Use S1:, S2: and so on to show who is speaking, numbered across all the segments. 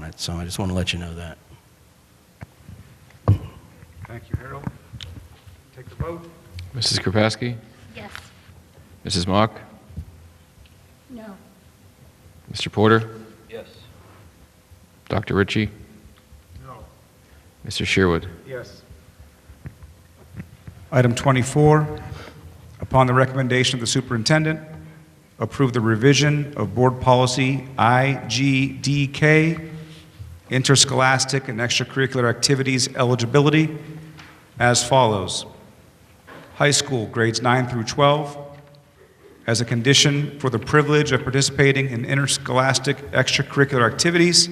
S1: that, so I just want to let you know that.
S2: Thank you, Harold. Take the vote.
S3: Mrs. Kropaski?
S4: Yes.
S3: Mrs. Mock?
S4: No.
S3: Mr. Porter?
S5: Yes.
S3: Dr. Ritchie?
S2: No.
S3: Mr. Sherwood?
S2: Yes. Item 24, upon the recommendation of the superintendent, approve the revision of Board Policy IGDK, interscholastic and extracurricular activities eligibility, as follows. High school, grades 9 through 12, as a condition for the privilege of participating in interscholastic extracurricular activities,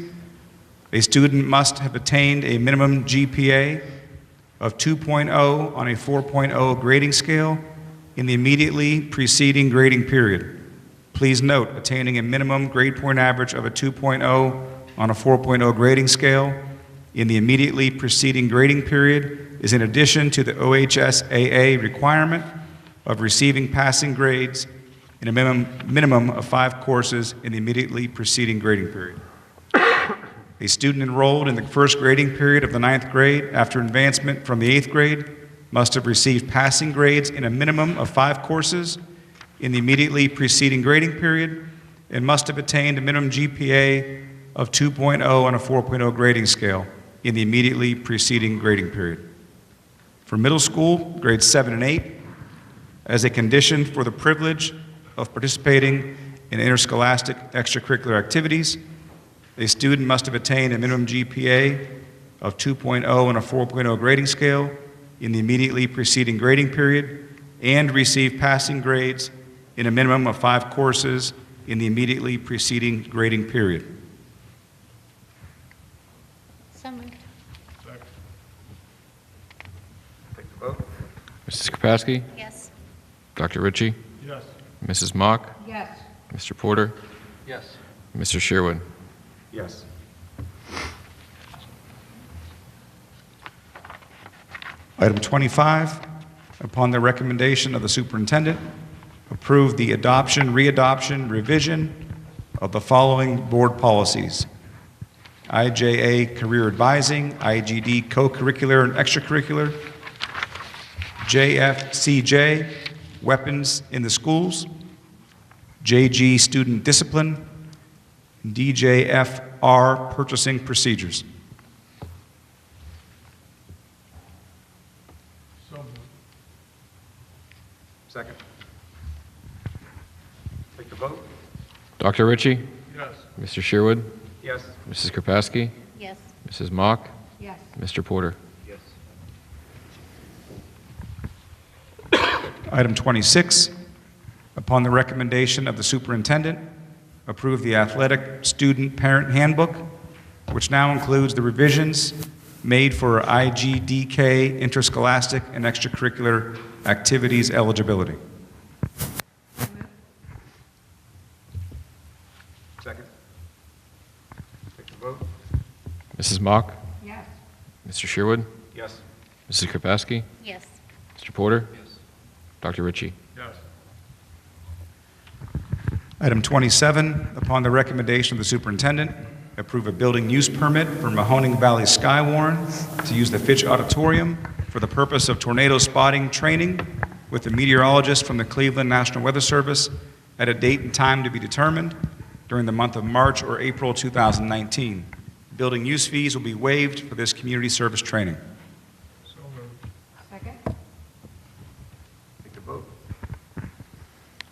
S2: a student must have attained a minimum GPA of 2.0 on a 4.0 grading scale in the immediately preceding grading period. Please note, attaining a minimum grade point average of a 2.0 on a 4.0 grading scale in the immediately preceding grading period is in addition to the OHSAA requirement of receiving passing grades in a minimum, minimum of five courses in the immediately preceding grading period. A student enrolled in the first grading period of the ninth grade after advancement from the eighth grade must have received passing grades in a minimum of five courses in the immediately preceding grading period and must have attained a minimum GPA of 2.0 on a 4.0 grading scale in the immediately preceding grading period. For middle school, grades 7 and 8, as a condition for the privilege of participating in interscholastic extracurricular activities, a student must have attained a minimum GPA of 2.0 on a 4.0 grading scale in the immediately preceding grading period and receive passing grades in a minimum of five courses in the immediately preceding grading period.
S4: So moved.
S3: Mrs. Kropaski?
S4: Yes.
S3: Dr. Ritchie?
S5: Yes.
S3: Mrs. Mock?
S4: Yes.
S3: Mr. Porter?
S5: Yes.
S3: Mr. Sherwood?
S2: Yes. Item 25, upon the recommendation of the superintendent, approve the adoption, readoption, revision of the following board policies: IJA Career Advising, IGD Co-curricular and Extracurricular, JFCJ Weapons in the Schools, JG Student Discipline, DJFR purchasing procedures. Second. Take the vote.
S3: Dr. Ritchie?
S5: Yes.
S3: Mr. Sherwood?
S2: Yes.
S3: Mrs. Kropaski?
S4: Yes.
S3: Mrs. Mock?
S4: Yes.
S3: Mr. Porter?
S5: Yes.
S2: Item 26, upon the recommendation of the superintendent, approve the athletic student parent handbook, which now includes the revisions made for IGDK interscholastic and extracurricular activities eligibility. Second. Take the vote.
S3: Mrs. Mock?
S4: Yes.
S3: Mr. Sherwood?
S2: Yes.
S3: Mrs. Kropaski?
S4: Yes.
S3: Mr. Porter?
S5: Yes.
S3: Dr. Ritchie?
S5: Yes.
S2: Item 27, upon the recommendation of the superintendent, approve a building use permit for Mahoning Valley Skywarn to use the Fitch Auditorium for the purpose of tornado spotting training with a meteorologist from the Cleveland National Weather Service at a date and time to be determined during the month of March or April 2019. Building use fees will be waived for this community service training.
S5: So moved.
S4: Second?
S2: Take the vote.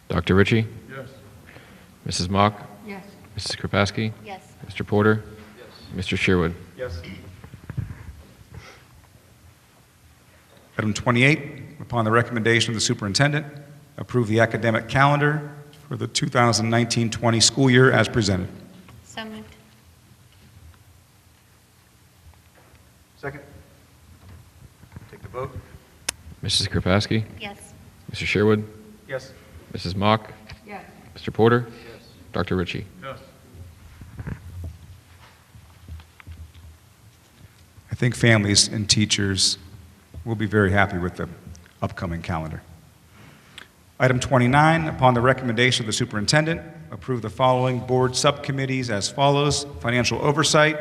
S3: Dr. Ritchie?
S5: Yes.
S3: Mrs. Mock?
S4: Yes.
S3: Mrs. Kropaski?
S4: Yes.
S3: Mr. Porter?
S5: Yes.
S3: Mr. Sherwood?
S2: Yes. Item 28, upon the recommendation of the superintendent, approve the academic calendar for the 2019-20 school year as presented.
S4: So moved.
S2: Second. Take the vote.
S3: Mrs. Kropaski?
S4: Yes.
S3: Mr. Sherwood?
S2: Yes.
S3: Mrs. Mock?
S4: Yes.
S3: Mr. Porter?
S5: Yes.
S3: Dr. Ritchie?
S5: Yes.
S2: I think families and teachers will be very happy with the upcoming calendar. Item 29, upon the recommendation of the superintendent, approve the following board subcommittees as follows: Financial Oversight,